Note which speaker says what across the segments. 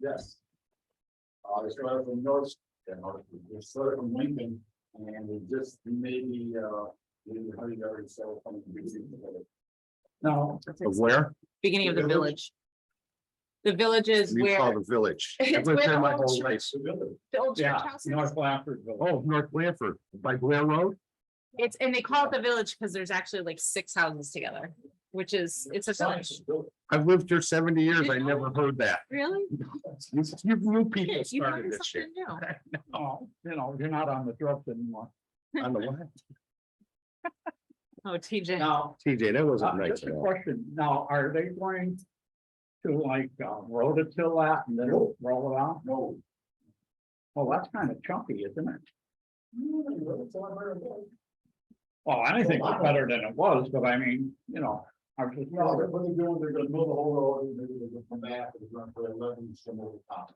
Speaker 1: Yes. Uh, we started from North, you know, we started from Lincoln, and we just maybe, uh, we hurried ourselves from the beginning.
Speaker 2: No,
Speaker 3: Of where?
Speaker 4: beginning of the
Speaker 1: The
Speaker 4: village. The village is
Speaker 3: You call
Speaker 4: where
Speaker 3: the village.
Speaker 4: It's
Speaker 3: I've lived
Speaker 4: where
Speaker 3: there my
Speaker 4: all
Speaker 3: whole
Speaker 4: the
Speaker 3: life.
Speaker 4: the old church
Speaker 2: yeah,
Speaker 4: house is.
Speaker 2: North Blanfordville.
Speaker 3: Oh, North Blanford, by Blair Road?
Speaker 4: It's, and they call it the village because there's actually like six houses together, which is, it's a village.
Speaker 3: I've lived here seventy years. I never heard that.
Speaker 4: Really?
Speaker 3: You, you new people
Speaker 4: You
Speaker 3: started
Speaker 4: learn
Speaker 3: this shit.
Speaker 4: something new.
Speaker 2: Oh, you know, you're not on the drugs anymore.
Speaker 3: I don't know.
Speaker 4: Oh, TJ.
Speaker 2: Now,
Speaker 3: TJ, that wasn't
Speaker 1: Ah,
Speaker 2: uh,
Speaker 3: nice
Speaker 2: just
Speaker 3: at
Speaker 2: a
Speaker 3: all.
Speaker 2: question. Now, are they going to like uh, road it till that and then roll it out?
Speaker 1: No.
Speaker 2: Well, that's kind of chunky, isn't it?
Speaker 1: No,
Speaker 2: Well, anything is better than it was, but I mean, you know, I was just.
Speaker 1: they're- what they're doing, they're gonna build the whole road, and maybe they're gonna come back, and run for eleven, some over top.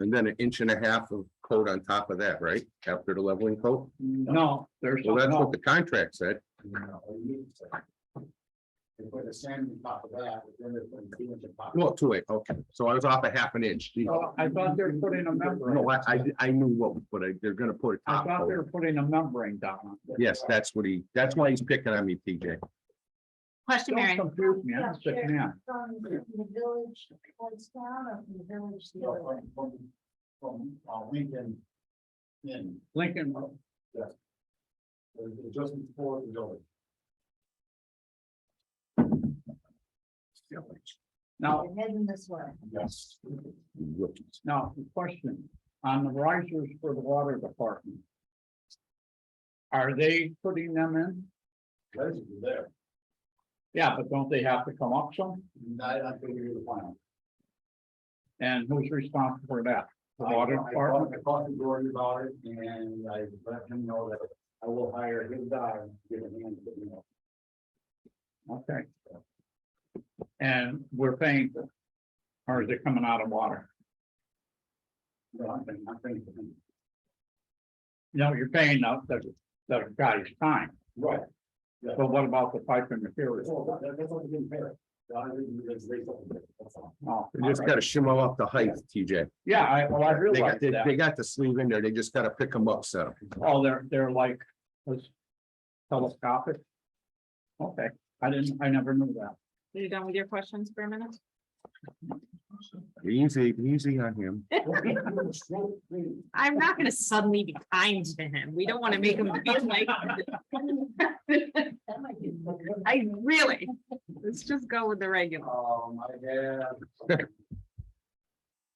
Speaker 3: And then an inch and a half of coat on top of that, right? After the leveling coat?
Speaker 2: No, there's,
Speaker 3: Well, that's
Speaker 2: no,
Speaker 3: what the contract said.
Speaker 1: you know, or you need to. They put the sand on top of that, but then they're putting two inch on top.
Speaker 3: Well, two eight, okay. So I was off a half an inch. Gee.
Speaker 2: Well, I thought they were putting a membrane.
Speaker 3: No, I, I, I knew what, but I, they're gonna put a
Speaker 2: I
Speaker 3: top
Speaker 2: thought they
Speaker 3: coat.
Speaker 2: were putting a membrane down.
Speaker 3: Yes, that's what he, that's why he's picking on me, TJ.
Speaker 4: Question,
Speaker 2: Don't
Speaker 4: Mary.
Speaker 2: confuse me, I'm a sick man.
Speaker 5: From the village towards town or from the village to the other way?
Speaker 1: From, from, from, uh, Lincoln. In,
Speaker 2: Lincoln,
Speaker 1: uh, just before the building.
Speaker 2: now,
Speaker 5: You're heading this way.
Speaker 1: Yes.
Speaker 3: Rookies.
Speaker 2: Now, the question, on the risers for the water department. Are they putting them in?
Speaker 1: Guys, you there.
Speaker 2: Yeah, but don't they have to come up some?
Speaker 1: I, I figured the plan.
Speaker 2: And who's responsible for that? The
Speaker 1: I
Speaker 2: water
Speaker 1: I talked,
Speaker 2: department?
Speaker 1: I talked to Gordon about it and I let him know that I will hire his guy, and give him a hand, but, you know.
Speaker 2: Okay. And we're paying for. it? Or is it coming out of water?
Speaker 1: No, I'm thinking, I'm thinking.
Speaker 2: No, you're paying the, the, the guy's time,
Speaker 1: Right.
Speaker 2: but what about the pipe and material?
Speaker 1: So that, that's what we didn't pay. The other thing is they told me, that's all.
Speaker 2: Oh,
Speaker 3: They just gotta shimmy up the height, TJ.
Speaker 2: Yeah, I, well, I
Speaker 3: They
Speaker 2: realize
Speaker 3: got, they,
Speaker 2: that.
Speaker 3: they got the sleeve in there. They just gotta pick them up, so.
Speaker 2: Oh, they're, they're like, was telescopic? Okay, I didn't, I never knew that.
Speaker 4: Are you done with your questions for a minute?
Speaker 3: Easy, easy on him.
Speaker 4: I'm not gonna suddenly be kind to him. We don't want to make him feel like.
Speaker 5: That might be.
Speaker 4: I really, let's just go with the regular.
Speaker 1: Um, I have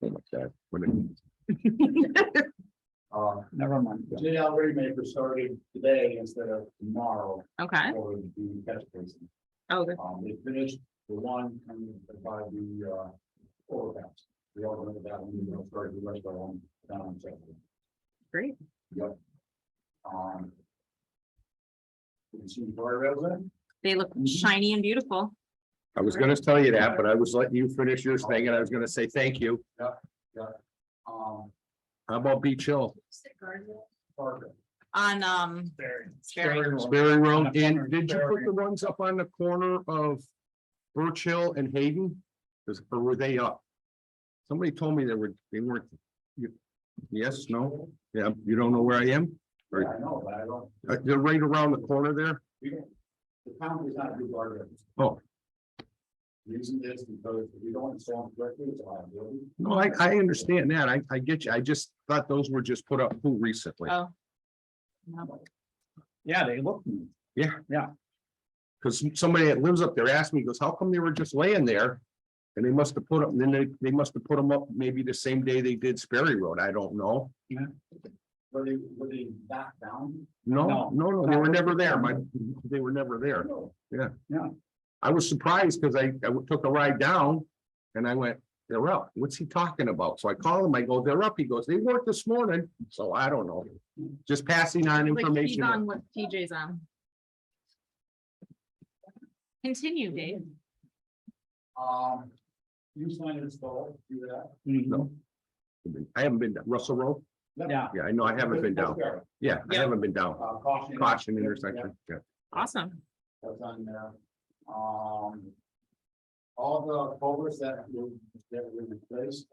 Speaker 3: Oh my God. What a-
Speaker 1: Uh,
Speaker 2: Never mind.
Speaker 1: JL Raymaker started today instead of tomorrow
Speaker 4: Okay,
Speaker 1: for the catch basin.
Speaker 4: oh,
Speaker 1: Um, they finished the one coming by the, uh, overpass. We all remember that one, you know, started the rest of them down on Saturday.
Speaker 4: Great.
Speaker 1: Yep. Um. You see the guardrails in?
Speaker 4: they look shiny and beautiful.
Speaker 3: I was gonna tell you that, but I was letting you finish your thing and I was gonna say thank you.
Speaker 1: Um,
Speaker 3: How about Beach Hill?
Speaker 1: Parker.
Speaker 4: On, um, Sperry.
Speaker 3: Sperry Road, and did you put the ones up on the corner of Birch Hill and Hayden? Is- Or were they up? Somebody told me they were, they weren't. you- Yes, no, yeah, you don't know where I am?
Speaker 1: Yeah, I know, but I don't,
Speaker 3: Uh, They're right around the corner there?
Speaker 1: we don't, the town does not do guardrails.
Speaker 3: Oh.
Speaker 1: The Reason is because if you don't install them correctly, it's a liability.
Speaker 3: No, I, I understand that. I, I get you. I just thought those were just put up who recently.
Speaker 4: Oh.
Speaker 2: Yeah, they look. neat.
Speaker 3: Cause somebody that lives up there asked me, goes, how come they were just laying there? And they must have put up, then they, they must have put them up maybe the same day they did Sperry Road. I don't know.
Speaker 1: Were they, were they back down?
Speaker 3: No,
Speaker 2: No.
Speaker 3: no, no, they were never there. My, they were never there.
Speaker 1: No.
Speaker 3: I was surprised because I, I took a ride down and I went, they're up. What's he talking about? So I call him, I go, they're up. He goes, they weren't this morning. So I don't know. Just passing on
Speaker 4: Like he's
Speaker 3: information.
Speaker 4: on what TJ's on. Continue, Dave.
Speaker 1: Um, you signed install, do that.
Speaker 3: No. I haven't been, down Russell Road?
Speaker 2: Mm-hmm. Yeah,
Speaker 3: Yeah, I know, I haven't been down.
Speaker 1: Uh,
Speaker 3: Yeah, I
Speaker 4: Yeah.
Speaker 3: haven't been down.
Speaker 1: caution.
Speaker 3: Caution intersection, yeah.
Speaker 4: Awesome.
Speaker 1: That's on there. Um. All the culverts that were, that were place.